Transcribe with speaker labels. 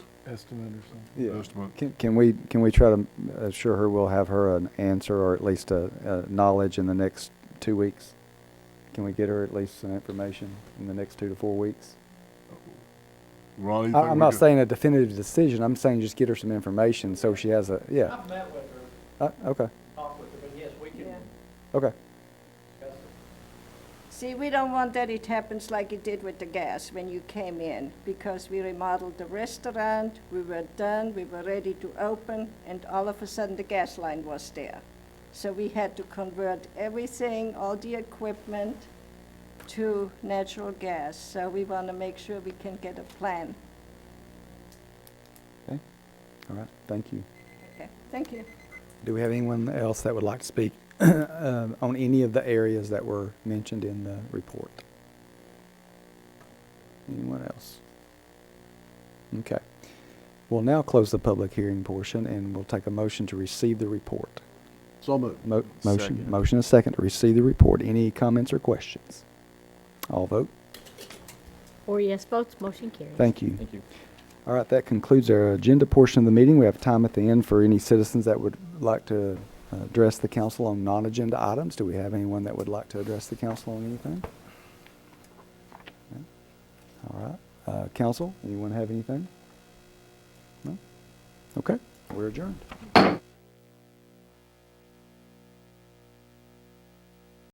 Speaker 1: estimate or something.
Speaker 2: Yeah.
Speaker 3: Estimate.
Speaker 2: Can, can we, can we try to assure her we'll have her an answer or at least a, a knowledge in the next two weeks? Can we get her at least some information in the next two to four weeks?
Speaker 3: Ronnie, you
Speaker 2: I,
Speaker 3: think
Speaker 2: I'm
Speaker 3: we
Speaker 2: not
Speaker 3: could-
Speaker 2: saying a definitive decision, I'm saying just get her some information so she has a, yeah,
Speaker 4: I've met with her,
Speaker 2: uh, okay,
Speaker 4: talked with her, but yes, we can
Speaker 5: Yeah.
Speaker 2: okay.
Speaker 4: discuss it.
Speaker 5: See, we don't want that it happens like it did with the gas when you came in, because we remodeled the restaurant, we were done, we were ready to open, and all of a sudden the gas line was there. So we had to convert everything, all the equipment, to natural gas. So we want to make sure we can get a plan.
Speaker 2: Okay, all right, thank you.
Speaker 5: Okay, thank you.
Speaker 2: Do we have anyone else that would like to speak um, on any of the areas that were mentioned in the report? Anyone else? Okay. We'll now close the public hearing portion and we'll take a motion to receive the report.
Speaker 3: So moved.
Speaker 2: Mo- Motion,
Speaker 6: Second.
Speaker 2: motion and second to receive the report. Any comments or questions? All vote.
Speaker 7: Four yes votes, motion carries.
Speaker 2: Thank you.
Speaker 6: Thank you.
Speaker 2: All right, that concludes our agenda portion of the meeting. We have time at the end for any citizens that would like to uh, address the council on non-agenda items. Do we have anyone that would like to address the council on anything? No? All right, Uh, council, anyone have anything? No? Okay, we're adjourned.